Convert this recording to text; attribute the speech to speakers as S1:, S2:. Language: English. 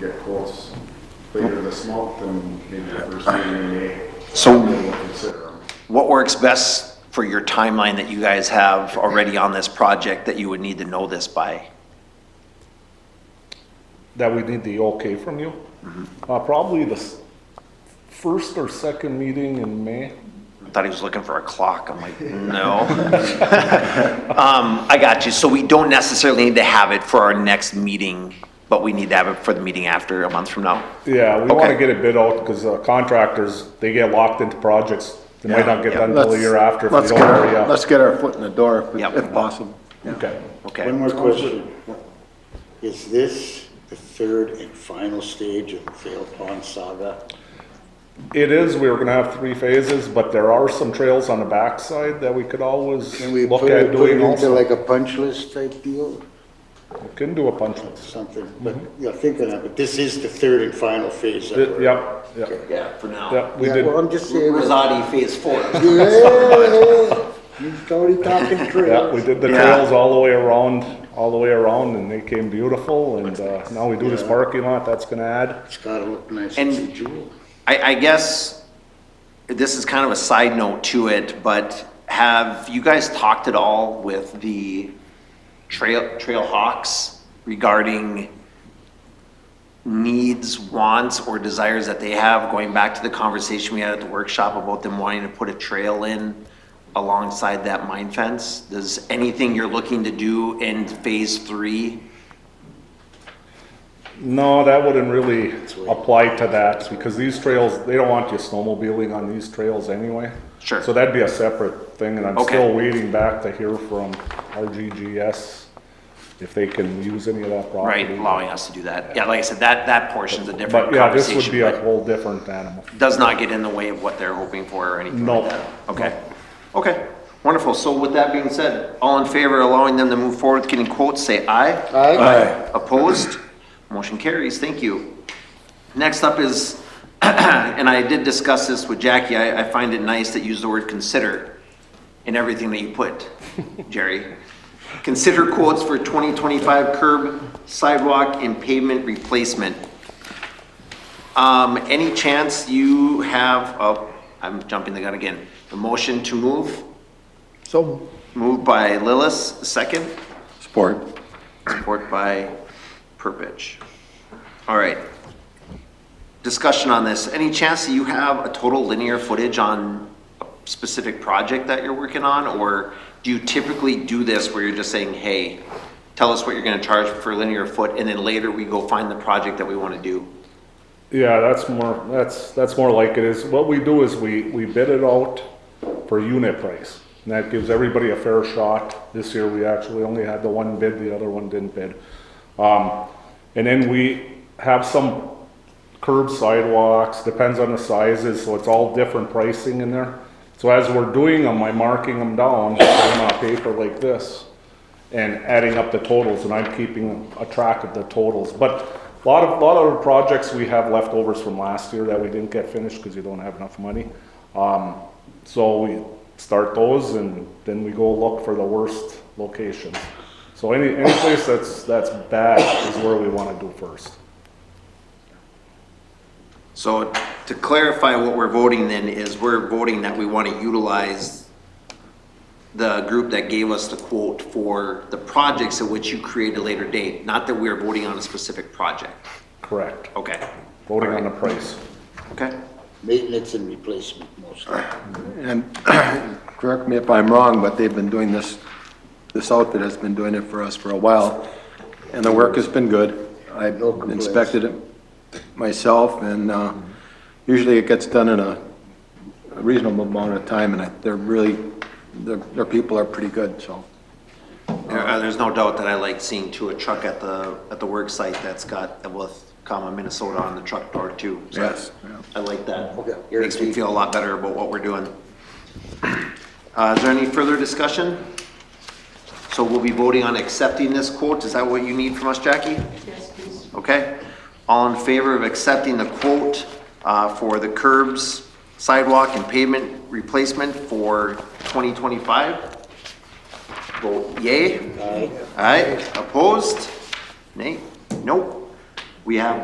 S1: get quotes later this month and maybe the first meeting in May.
S2: So-
S1: We'll consider them.
S2: What works best for your timeline that you guys have already on this project that you would need to know this by?
S3: that we need the okay from you. Uh, probably the s- first or second meeting in May.
S2: I thought he was looking for a clock. I'm like, no. Um, I got you. So we don't necessarily need to have it for our next meeting, but we need to have it for the meeting after a month from now.
S3: Yeah, we want
S2: Okay.
S3: to get it bid out because contractors, they get locked into projects. They might not get
S2: Yeah.
S3: done until a
S4: Let's-
S3: year after if
S4: let's
S3: they don't
S4: get our-
S3: hurry up.
S4: Let's get our foot in the door if we-
S2: Yep.
S4: if possible.
S3: Okay.
S5: One
S2: Okay.
S5: more question. Is this the third and final stage of the Fail Pond Saga?
S3: It is, we were gonna have three phases, but there are some trails on the backside that we could always
S5: Can we
S3: look
S5: put it
S3: at
S5: put it
S3: doing
S5: into
S3: also.
S5: like a punch list type deal?
S3: We Can do a punch list.
S5: Something, but,
S3: Mm-hmm.
S5: yeah, thinking of it, this is the third and final phase of
S3: Th-
S5: it.
S3: Yep, yep,
S2: Yeah, for now.
S3: yep, we
S5: Yeah,
S3: did,
S5: well, I'm just saying.
S2: Rosati Phase Four.
S5: Yeah, yeah, you started talking
S3: yeah, we
S5: trails.
S3: did the
S2: Yeah.
S3: trails all the way around, all the way around and they came beautiful and, uh, now we do this parking lot, that's gonna add.
S5: It's gotta look nice.
S2: And-
S5: It's a jewel.
S2: I, I guess this is kind of a side note to it, but have you guys talked at all with the trail, trail hawks regarding needs, wants, or desires that they have, going back to the conversation we had at the workshop about them wanting to put a trail in alongside that mine fence? Does anything you're looking to do in phase three?
S3: No, that wouldn't really apply to that because these trails, they don't want you snowmobiling on these trails anyway.
S2: Sure.
S3: So that'd be a separate thing and I'm
S2: Okay.
S3: still waiting back to hear from RGGS if they can use any of that property.
S2: Right, allowing us to do that. Yeah, like I said, that, that portion's a different
S3: But
S2: conversation.
S3: yeah, this would be
S2: but-
S3: a whole different animal.
S2: does not get in the way of what they're hoping for or anything
S3: No.
S2: like that? Okay, okay, wonderful. So with that being said, all in favor of allowing them to move forward with getting quotes, say aye.
S4: Aye.
S2: Opposed? Motion carries, thank you. Next up is, and I did discuss this with Jackie, I, I find it nice that you use the word consider in everything that you put, Jerry. Consider quotes for 2025 curb sidewalk and pavement replacement. Um, any chance you have, oh, I'm jumping the gun again, the motion to move,
S4: So,
S2: moved by Lillis, second,
S4: support.
S2: support by Purpich. All right. Discussion on this, any chance that you have a total linear footage on a specific project that you're working on? Or do you typically do this where you're just saying, hey, tell us what you're gonna charge for linear foot, and then later we go find the project that we wanna do?
S3: Yeah, that's more, that's, that's more like it is. What we do is we, we bid it out for unit price. And that gives everybody a fair shot. This year, we actually only had the one bid, the other one didn't bid. Um, and then we have some curb sidewalks, depends on the sizes, so it's all different pricing in there. So as we're doing them, I'm marking them down on a paper like this and adding up the totals, and I'm keeping a track of the totals. But a lot of, lot of projects we have leftovers from last year that we didn't get finished because you don't have enough money. Um, so we start those and then we go look for the worst locations. So any, any place that's, that's bad is where we want to do first.
S2: So to clarify, what we're voting then is we're voting that we want to utilize the group that gave us the quote for the projects at which you create a later date, not that we're voting on a specific project.
S3: Correct.
S2: Okay,
S3: Voting on the price.
S2: okay.
S5: Maintenance and replacement mostly.
S4: And correct me if I'm wrong, but they've been doing this, this outfit has been doing it for us for a while, and the work has been good. I
S5: No complaints.
S4: inspected it myself, and uh, usually it gets done in a reasonable amount of time, and I- they're really, their their people are pretty good, so.
S2: There- uh, There's no doubt that I like seeing to a truck at the, at the work site that's got, with, comma, Minnesota on the truck door too. So
S4: Yes, yeah.
S2: I like that.
S5: Okay.
S2: Makes me feel a lot better about what we're doing. Uh, is there any further discussion? So we'll be voting on accepting this quote. Is that what you need from us, Jackie?
S6: Yes, please.
S2: Okay. All in favor of accepting the quote, uh, for the curbs, sidewalk and pavement replacement for 2025? Vote yay. Aye. Aye. Opposed? Nay? Nope. We have